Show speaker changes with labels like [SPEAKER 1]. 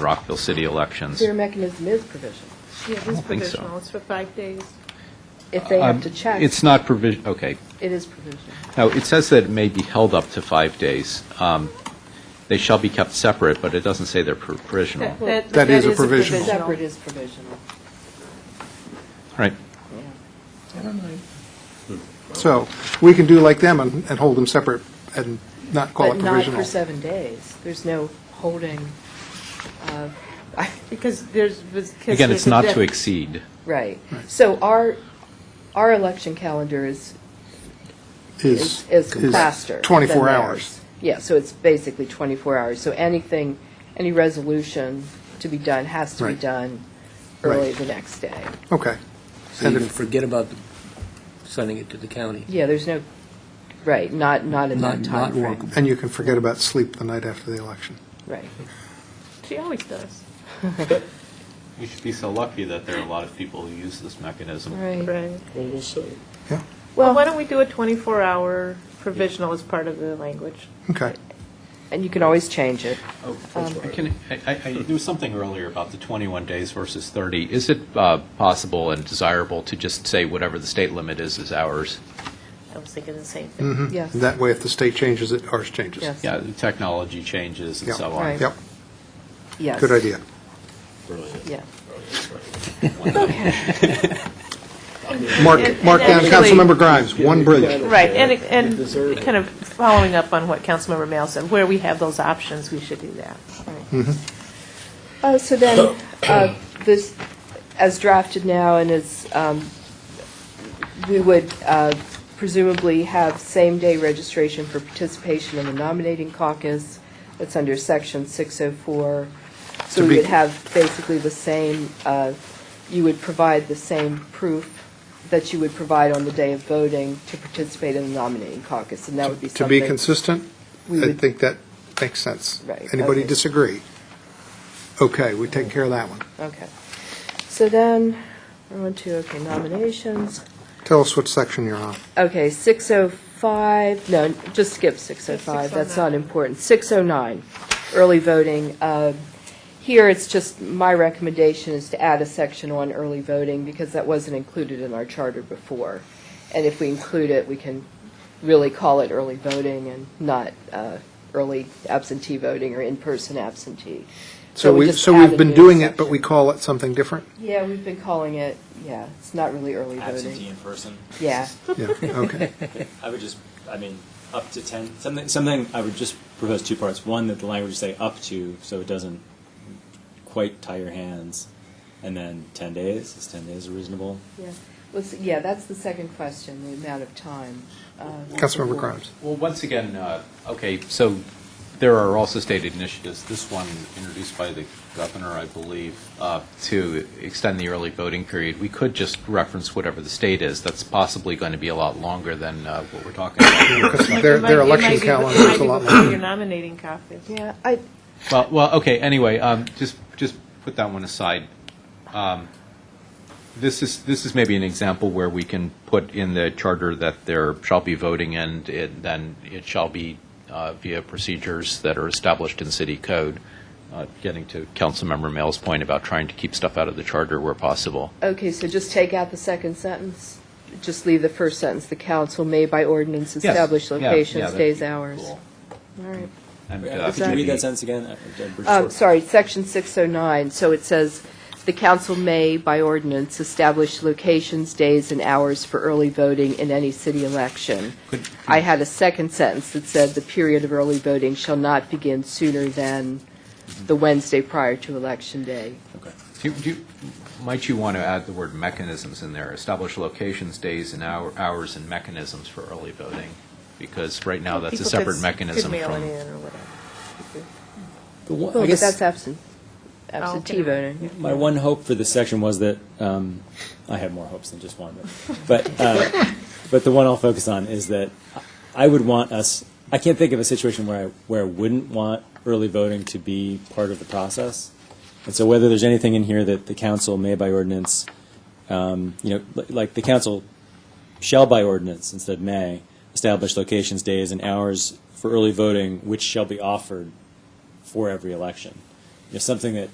[SPEAKER 1] Rockville city elections.
[SPEAKER 2] Their mechanism is provision.
[SPEAKER 3] Yeah,
[SPEAKER 1] don't
[SPEAKER 3] it's
[SPEAKER 1] think so.
[SPEAKER 3] provisional, it's for five days.
[SPEAKER 2] If they have
[SPEAKER 1] Um,
[SPEAKER 2] to check,
[SPEAKER 1] It's not provision, okay.
[SPEAKER 2] it is provision.
[SPEAKER 1] Now, it says that it may be held up to five days. Um, They shall be kept separate, but it doesn't say they're pro- provisional.
[SPEAKER 3] That-
[SPEAKER 1] All
[SPEAKER 3] That
[SPEAKER 4] That is a provisional.
[SPEAKER 2] Separate is provisional.
[SPEAKER 1] right.
[SPEAKER 4] So we can do like them and, and hold them separate and not call
[SPEAKER 2] But
[SPEAKER 4] it
[SPEAKER 2] not for
[SPEAKER 4] provisional.
[SPEAKER 2] seven days. There's no holding, uh,
[SPEAKER 3] Because there's, because.
[SPEAKER 1] Again, it's
[SPEAKER 3] there's a
[SPEAKER 1] not to
[SPEAKER 3] deadline.
[SPEAKER 1] exceed.
[SPEAKER 2] right. So our, our election calendar is,
[SPEAKER 4] Is,
[SPEAKER 2] is is faster.
[SPEAKER 4] is
[SPEAKER 2] than
[SPEAKER 4] 24
[SPEAKER 2] theirs.
[SPEAKER 4] hours.
[SPEAKER 2] Yeah, so it's basically 24 hours. So anything, any resolution to be done has to be
[SPEAKER 4] Right.
[SPEAKER 2] done early
[SPEAKER 4] Right.
[SPEAKER 2] the next day.
[SPEAKER 4] Okay.
[SPEAKER 5] So you can forget about sending it to the county.
[SPEAKER 2] Yeah, there's no, right, not, not in that
[SPEAKER 5] Not- not
[SPEAKER 2] timeframe.
[SPEAKER 5] workable.
[SPEAKER 4] And you can forget about sleep the night after the election.
[SPEAKER 2] Right.
[SPEAKER 3] She always does,
[SPEAKER 1] You should be so lucky that there are a lot of people who use this mechanism.
[SPEAKER 3] right.
[SPEAKER 4] Yeah,
[SPEAKER 3] Well, why don't we do a 24-hour provisional as part of the language?
[SPEAKER 4] okay.
[SPEAKER 2] And you can always change it.
[SPEAKER 1] I can, I- I, I, Oh, there was something earlier about the 21 days versus 30. Is it uh, possible and desirable to just say whatever the state limit is, is ours?
[SPEAKER 3] I was thinking the same thing.
[SPEAKER 2] Yes.
[SPEAKER 4] That way, if the state changes it, ours changes.
[SPEAKER 2] Yes.
[SPEAKER 1] Yeah, the technology changes and
[SPEAKER 4] Yeah.
[SPEAKER 1] so
[SPEAKER 2] Right.
[SPEAKER 1] on.
[SPEAKER 4] Yep,
[SPEAKER 2] Yes.
[SPEAKER 4] good idea.
[SPEAKER 2] Yeah.
[SPEAKER 4] Mark,
[SPEAKER 3] And- and
[SPEAKER 4] mark down
[SPEAKER 3] actually-
[SPEAKER 4] Councilmember Grimes, one brilliant.
[SPEAKER 3] Right, and, and kind of following up on what Councilmember Mayo said, where we have those options, we should do that.
[SPEAKER 2] Uh, So then, uh, this, as drafted now and as, um, we would uh, presumably have same-day registration for participation in the nominating caucus. That's under section 604. So
[SPEAKER 4] To
[SPEAKER 2] we
[SPEAKER 4] be-
[SPEAKER 2] would have basically the same, uh, you would provide the same proof that you would provide on the day of voting to participate in the nominating caucus, and that would be
[SPEAKER 4] To
[SPEAKER 2] something.
[SPEAKER 4] be consistent,
[SPEAKER 2] we
[SPEAKER 4] I
[SPEAKER 2] would-
[SPEAKER 4] think that makes sense.
[SPEAKER 2] Right,
[SPEAKER 4] Anybody
[SPEAKER 2] okay.
[SPEAKER 4] disagree? Okay, we take care of that one.
[SPEAKER 2] Okay. So then, we're on to, okay, nominations.
[SPEAKER 4] Tell us what section you're on.
[SPEAKER 2] Okay, 605, no, just skip 605, that's not important. 609, early voting. Uh, Here, it's just, my recommendation is to add a section on early voting, because that wasn't included in our charter before. And if we include it, we can really call it early voting and not uh, early absentee voting or in-person absentee.
[SPEAKER 4] So we,
[SPEAKER 2] just
[SPEAKER 4] so
[SPEAKER 2] add
[SPEAKER 4] we've
[SPEAKER 2] a
[SPEAKER 4] been
[SPEAKER 2] new
[SPEAKER 4] doing it, but
[SPEAKER 2] section.
[SPEAKER 4] we call it something different?
[SPEAKER 2] Yeah, we've been calling it, yeah, it's not really early
[SPEAKER 6] absentee
[SPEAKER 2] voting.
[SPEAKER 6] in person.
[SPEAKER 2] Yeah,
[SPEAKER 4] Yeah, okay.
[SPEAKER 6] I would just, I mean, up to 10, something, something, I would just propose two parts. One, that the language say up to, so it doesn't quite tie your hands. And then 10 days, is 10 days reasonable?
[SPEAKER 2] yeah. Well, s- yeah, that's the second question, the amount of time. Uh,
[SPEAKER 4] Councilmember Grimes.
[SPEAKER 1] Well, once again, uh, okay, so there are also stated initiatives, this one introduced by the governor, I believe, uh, to extend the early voting period. We could just reference whatever the state is. That's possibly going to be a lot longer than uh, what we're talking about here.
[SPEAKER 4] Because
[SPEAKER 3] Like,
[SPEAKER 4] their,
[SPEAKER 3] it might-
[SPEAKER 4] their
[SPEAKER 3] it might be-
[SPEAKER 4] election
[SPEAKER 3] it might
[SPEAKER 4] calendar is a
[SPEAKER 3] be
[SPEAKER 4] lot
[SPEAKER 3] before
[SPEAKER 4] longer.
[SPEAKER 3] Your nominating caucus.
[SPEAKER 2] Yeah, I,
[SPEAKER 1] Well, well, okay, anyway, um, just, just put that one aside. Um, This is, this is maybe an example where we can put in the charter that there shall be voting and it, then it shall be uh, via procedures that are established in city code, Uh, getting to Councilmember Mail's point about trying to keep stuff out of the charter where possible.
[SPEAKER 2] okay, so just take out the second sentence? Just leave the first sentence, the council may by ordinance
[SPEAKER 1] Yes,
[SPEAKER 2] establish
[SPEAKER 1] yeah, yeah,
[SPEAKER 2] locations,
[SPEAKER 1] that'd
[SPEAKER 2] days,
[SPEAKER 1] be
[SPEAKER 2] hours.
[SPEAKER 1] cool.
[SPEAKER 2] All right.
[SPEAKER 1] And,
[SPEAKER 6] Could
[SPEAKER 1] uh,
[SPEAKER 6] you read
[SPEAKER 1] maybe-
[SPEAKER 6] that sentence again? I- I'm pretty
[SPEAKER 2] Um,
[SPEAKER 6] sure-
[SPEAKER 2] Sorry, section 609, so it says, "The council may, by ordinance, establish locations, days, and hours for early voting in any city election." I had a second sentence that said, "The period of early voting shall not begin sooner than the Wednesday prior to election day."
[SPEAKER 6] Okay.
[SPEAKER 1] Do you- do you- Might you want to add the word mechanisms in there? Establish locations, days, and hour- hours, and mechanisms for early voting? Because right now, that's a
[SPEAKER 3] People could
[SPEAKER 1] separate
[SPEAKER 3] s-
[SPEAKER 1] mechanism
[SPEAKER 3] Could mail it
[SPEAKER 1] from,
[SPEAKER 3] in or whatever.
[SPEAKER 6] The one- I
[SPEAKER 2] Well, but
[SPEAKER 6] guess-
[SPEAKER 2] that's absent, absentee
[SPEAKER 3] absentee
[SPEAKER 2] voting.
[SPEAKER 6] My one hope for this section was that um, I had more hopes than just one, but but, uh, but the one I'll focus on is that I would want us. I can't think of a situation where I where I wouldn't want early voting to be part of the process. And so, whether there's anything in here that the council may by ordinance, um, you know, li- like the council shall by ordinance instead of may establish locations, days, and hours for early voting, which shall be offered for every election. You know, something that